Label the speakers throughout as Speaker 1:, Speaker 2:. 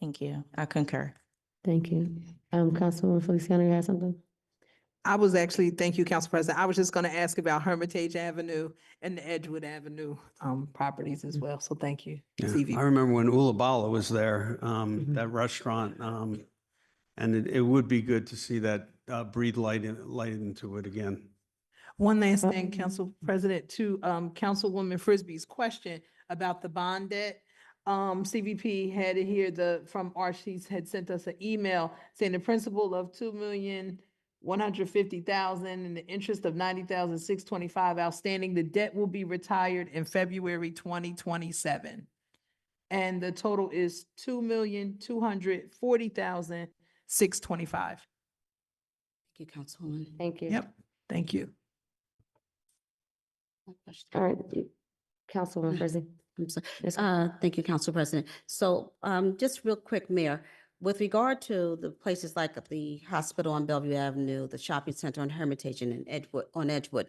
Speaker 1: Thank you. I concur.
Speaker 2: Thank you. Um, Councilwoman Feliciano, you had something?
Speaker 3: I was actually, thank you, Council President. I was just going to ask about Hermitage Avenue and the Edgewood Avenue um, properties as well. So thank you.
Speaker 4: Yeah,
Speaker 3: CV.
Speaker 4: I remember when Ulabala was there, um,
Speaker 2: Mhm.
Speaker 4: that restaurant, um, and it, it would be good to see that, uh, breathe light in, light into it again.
Speaker 3: One last
Speaker 2: Uh,
Speaker 3: thing, Council President, to um Councilwoman Frisbee's question about the bond debt. Um, CVP had it here, the, from Archie's had sent us an email saying the principal of two million one hundred fifty thousand and the interest of ninety thousand six twenty-five outstanding. The debt will be retired in February twenty twenty-seven. And the total is two million two hundred forty thousand six twenty-five.
Speaker 5: Thank you, Councilwoman.
Speaker 2: Thank you.
Speaker 3: Yep, thank you.
Speaker 5: No question.
Speaker 2: All right, you- Councilwoman Frizzy.
Speaker 5: I'm sorry.
Speaker 2: Yes,
Speaker 5: Uh, thank you, Council President. So, um, just real quick, Mayor, with regard to the places like the hospital on Bellevue Avenue, the shopping center on Hermitage and in Edgewood, on Edgewood.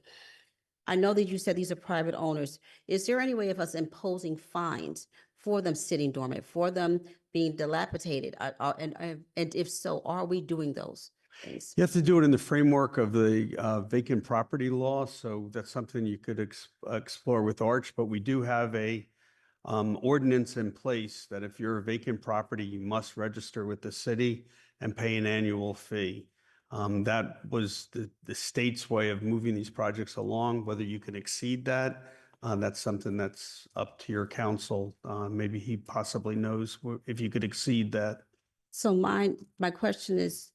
Speaker 5: I know that you said these are private owners. Is there any way of us imposing fines for them sitting dormant, for them being dilapidated? Uh, uh, and, uh, and if so, are we doing those things?
Speaker 4: You have to do it in the framework of the, uh, vacant property law, so that's something you could ex- uh, explore with Arch, but we do have a, um, ordinance in place that if you're a vacant property, you must register with the city and pay an annual fee. Um, that was the, the state's way of moving these projects along, whether you can exceed that. Uh, that's something that's up to your council. Uh, maybe he possibly knows wh- if you could exceed that.
Speaker 5: So mine, my question is,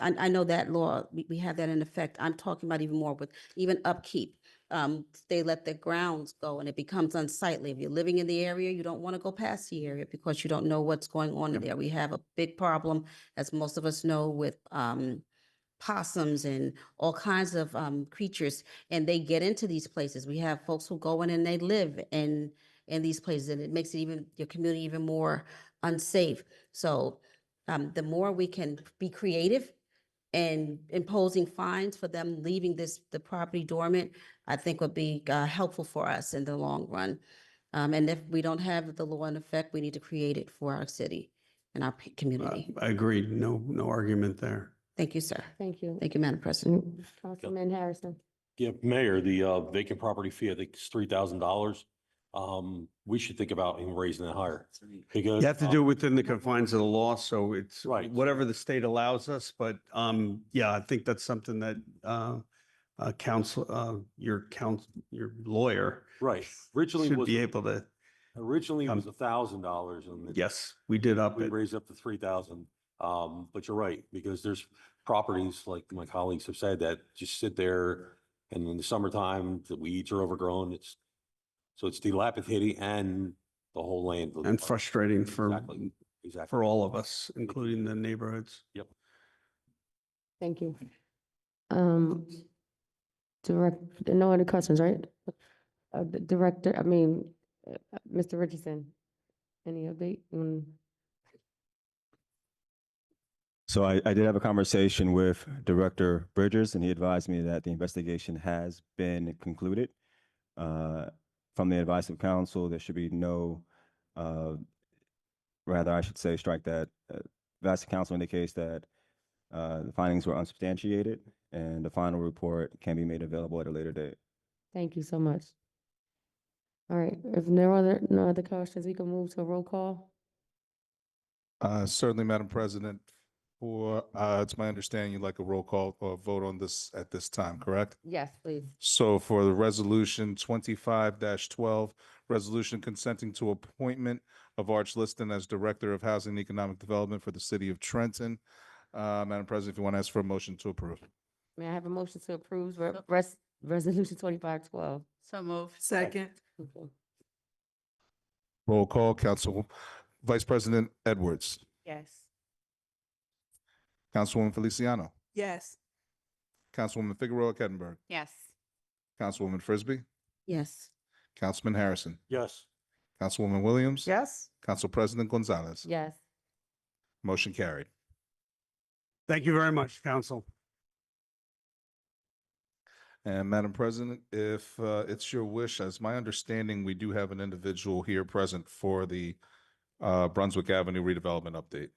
Speaker 5: I, I know that law, we, we have that in effect. I'm talking about even more with even upkeep. Um, they let the grounds go and it becomes unsightly. If you're living in the area, you don't want to go past the area because you don't know what's going on in there. We have a big problem, as most of us know, with, um, possums and all kinds of, um, creatures. And they get into these places. We have folks who go in and they live in, in these places and it makes it even, your community even more unsafe. So um, the more we can be creative and imposing fines for them leaving this, the property dormant, I think would be uh, helpful for us in the long run. Um, and if we don't have the law in effect, we need to create it for our city and our p-
Speaker 4: Uh,
Speaker 5: community.
Speaker 4: Agreed. No, no argument there.
Speaker 5: Thank you, sir.
Speaker 2: thank you.
Speaker 5: Thank you, Madam President.
Speaker 2: Mm, Councilman Harrison.
Speaker 6: Yeah, Mayor, the uh, vacant property fee, I think is three thousand dollars. Um, we should think about even raising it higher because.
Speaker 4: You have to
Speaker 6: uh,
Speaker 4: do it within the confines of the law, so it's
Speaker 6: Right.
Speaker 4: whatever the state allows us, but um, yeah, I think that's something that uh, uh, counsel, uh, your counsel, your lawyer
Speaker 6: Right, originally
Speaker 4: should
Speaker 6: was,
Speaker 4: be able to,
Speaker 6: originally it was
Speaker 4: um,
Speaker 6: a thousand dollars and. then
Speaker 4: yes, we did up
Speaker 6: We
Speaker 4: it.
Speaker 6: raised up to three thousand. Um, but you're right, because there's properties, like my colleagues have said, that just sit there and in the summertime, the weeds are overgrown. It's, so it's dilapidated and the whole land.
Speaker 4: And frustrating for,
Speaker 6: Exactly, exactly.
Speaker 4: for all of us, including the neighborhoods.
Speaker 2: Thank you. Um, direct, no other questions, right? Uh, the director, I mean, uh, uh, Mr. Richardson, any update? Mm,
Speaker 7: So I, I did have a conversation with Director Bridgers, and he advised me that the investigation has been concluded. Uh, From the advice of counsel, there should be no, uh, rather, I should say, strike that. uh, Advice of counsel indicates that uh, the findings were unsubstantiated, and the final report can be made available at a later date.
Speaker 2: Thank you so much. All right, if there are other, no other questions, we can move to a roll call.
Speaker 8: Uh, Certainly, Madam President, for, uh, it's my understanding you'd like a roll call or vote on this at this time, correct?
Speaker 2: Yes, please.
Speaker 8: So for the resolution twenty-five twelve, resolution consenting to appointment of Arch Liston as Director of Housing and Economic Development for the City of Trenton. Uh, Madam President, if you want to ask for a motion to approve.
Speaker 2: May I have a motion to approve re- res- resolution twenty-five twelve?
Speaker 5: So move.
Speaker 3: Second.
Speaker 8: Roll call, Council Vice President Edwards,
Speaker 1: Yes.
Speaker 8: Councilwoman Feliciano,
Speaker 3: Yes.
Speaker 8: Councilwoman Figueroa Kettenberg,
Speaker 1: Yes.
Speaker 8: Councilwoman Frisbee,
Speaker 5: Yes.
Speaker 8: Councilman Harrison,
Speaker 6: Yes.
Speaker 8: Councilwoman Williams.
Speaker 3: Yes.
Speaker 8: Council President Gonzalez.
Speaker 2: Yes,
Speaker 8: Motion carried.
Speaker 4: Thank you very much, counsel.
Speaker 8: And Madam President, if uh, it's your wish, as my understanding, we do have an individual here present for the uh, Brunswick Avenue redevelopment update.